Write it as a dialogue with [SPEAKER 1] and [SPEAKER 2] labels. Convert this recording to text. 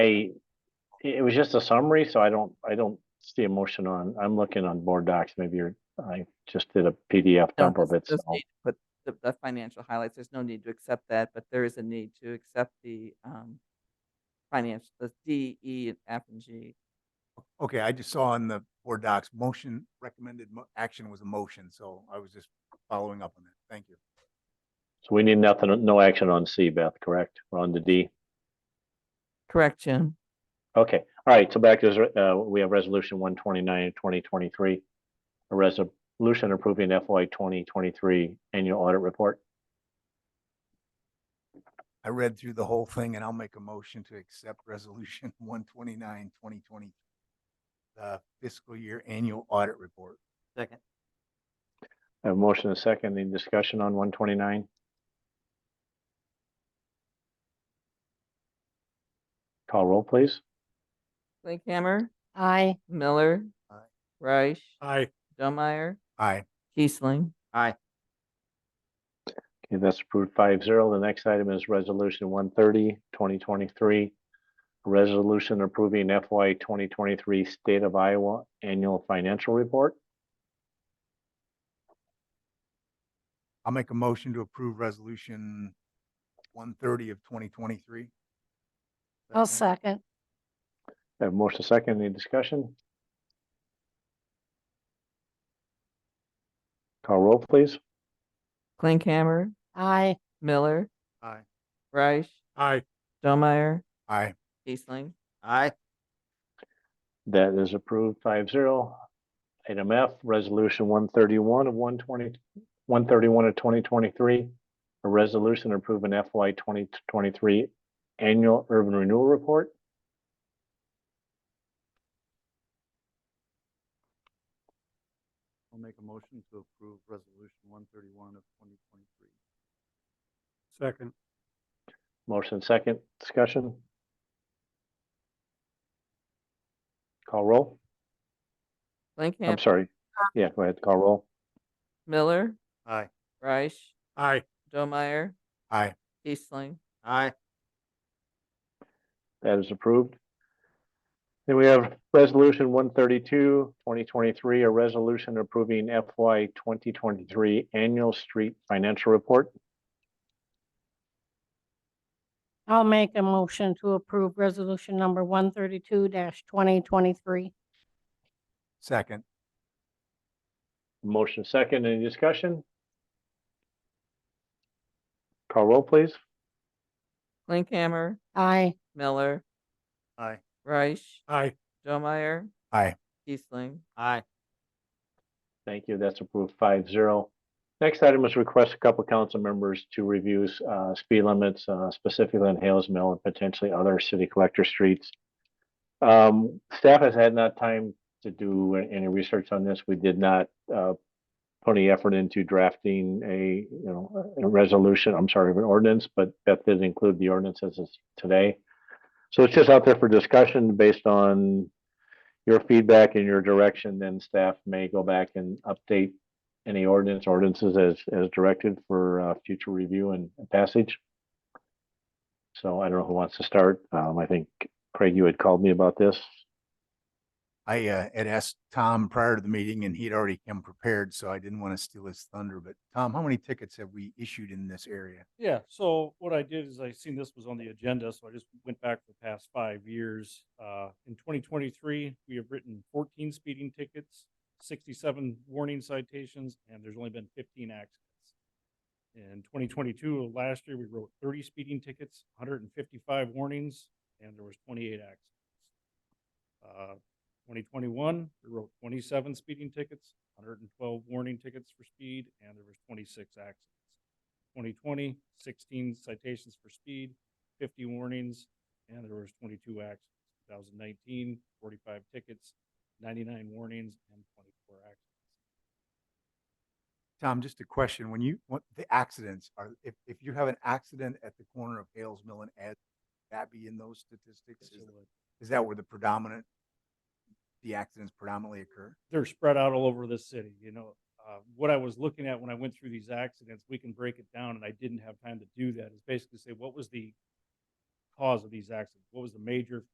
[SPEAKER 1] I, it was just a summary, so I don't, I don't see a motion on, I'm looking on board docs, maybe you're, I just did a PDF
[SPEAKER 2] No,
[SPEAKER 1] dump of
[SPEAKER 2] there's
[SPEAKER 1] it,
[SPEAKER 2] no
[SPEAKER 1] so.
[SPEAKER 2] need, But the, the financial highlights, there's no need to accept that, but there is a need to accept the, um, financial, the D, E, and F and G.
[SPEAKER 3] Okay, I just saw on the board docs, motion recommended mo- action was a motion, so I was just following up on that. Thank you.
[SPEAKER 1] So we need nothing, no action on C, Beth, correct? We're on the D.
[SPEAKER 2] Correct, Jim?
[SPEAKER 1] Okay, all right, so back to, uh, we have resolution one twenty-nine, twenty twenty-three. A resolution approving FY twenty twenty-three annual audit report.
[SPEAKER 3] I read through the whole thing and I'll make a motion to accept resolution one twenty-nine, twenty twenty. The fiscal year annual audit report.
[SPEAKER 2] Second.
[SPEAKER 1] I have A motion and a second, any discussion on one twenty-nine? Call roll, please.
[SPEAKER 2] Linkhammer,
[SPEAKER 4] Aye.
[SPEAKER 2] Miller.
[SPEAKER 3] Aye.
[SPEAKER 2] Reich.
[SPEAKER 3] Aye.
[SPEAKER 2] Dumeyer.
[SPEAKER 3] Aye.
[SPEAKER 2] Kiesling.
[SPEAKER 1] Okay, that's approved five zero. The next item is resolution 130, 2023, Resolution approving FY twenty twenty-three State of Iowa Annual Financial Report.
[SPEAKER 3] I'll make a motion to approve resolution one thirty of twenty twenty-three.
[SPEAKER 4] I'll second.
[SPEAKER 1] I Have a motion second, any discussion? Call roll, please.
[SPEAKER 2] Linkhammer,
[SPEAKER 4] Aye.
[SPEAKER 2] Miller,
[SPEAKER 3] Aye.
[SPEAKER 2] Reich,
[SPEAKER 3] Aye.
[SPEAKER 2] Dumeyer,
[SPEAKER 3] Aye.
[SPEAKER 2] Kiesling.
[SPEAKER 3] Aye.
[SPEAKER 1] That is approved five zero. Item F, resolution one thirty-one of 120 131 of twenty twenty-three. A resolution approving FY twenty twenty-three annual urban renewal report.
[SPEAKER 3] I'll make a motion to approve resolution one thirty-one of twenty twenty-three.
[SPEAKER 5] Second,
[SPEAKER 1] Motion second, discussion. Call roll. I'm
[SPEAKER 2] Linkhammer,
[SPEAKER 1] sorry. Yeah, go ahead, call roll.
[SPEAKER 2] Miller,
[SPEAKER 3] Aye.
[SPEAKER 2] Reich,
[SPEAKER 5] aye,
[SPEAKER 2] Dumeyer,
[SPEAKER 3] Aye.
[SPEAKER 2] Kiesling.
[SPEAKER 3] Aye.
[SPEAKER 1] That is approved. Then we have resolution 132, 2023, a resolution approving FY twenty twenty-three annual street financial report.
[SPEAKER 4] I'll make a motion to approve resolution number one thirty-two twenty twenty-three.
[SPEAKER 3] Second.
[SPEAKER 1] Motion second, any discussion? Call roll, please.
[SPEAKER 2] Linkhammer,
[SPEAKER 4] Aye.
[SPEAKER 2] Miller,
[SPEAKER 3] Aye.
[SPEAKER 2] Reich,
[SPEAKER 5] aye,
[SPEAKER 2] Dumeyer.
[SPEAKER 3] Aye.
[SPEAKER 2] Kiesling.
[SPEAKER 3] Aye.
[SPEAKER 1] Thank you, that's approved five zero. Next item is request a couple council members to review uh, speed limits uh, specifically on Hales Mill and potentially other city collector streets. Um, Staff has had not time to do a- any research on this. We did not uh, put any effort into drafting a, you know, a resolution, I'm sorry, an ordinance, but Beth did include the ordinance as is today. So it's just out there for discussion based on your feedback and your direction, then staff may go back and update any ordinance ordinances as, as directed for, uh, future review and passage. So I don't know who wants to start. Um, I think Craig, you had called me about this.
[SPEAKER 3] I uh, had asked Tom prior to the meeting and he'd already come prepared, so I didn't want to steal his thunder. But Tom, how many tickets have we issued in this area?
[SPEAKER 5] yeah, so what I did is I seen this was on the agenda, so I just went back the past five years. Uh, in twenty twenty-three, we have written fourteen speeding tickets, sixty-seven warning citations, and there's only been fifteen accidents. In twenty twenty-two, last year, we wrote thirty speeding tickets, hundred and fifty-five warnings, and there was twenty-eight accidents. Uh, twenty twenty-one, we wrote twenty-seven speeding tickets, hundred and twelve warning tickets for speed, and there was twenty-six accidents. 2020, 16 citations for speed, 50 warnings, and there was 22 accidents. 2019, 45 tickets, 99 warnings, and 24 accidents.
[SPEAKER 3] Tom, just a question. When you, what, the accidents are, if, if you have an accident at the corner of Hales Mill and Ed, that be in those statistics? Is-
[SPEAKER 5] uh,
[SPEAKER 3] Is that where the predominant, the accidents predominantly occur?
[SPEAKER 5] They're spread out all over the city, you know. Uh, What I was looking at when I went through these accidents, we can break it down, and I didn't have time to do that, is basically say, what was the cause of these accidents? What was the major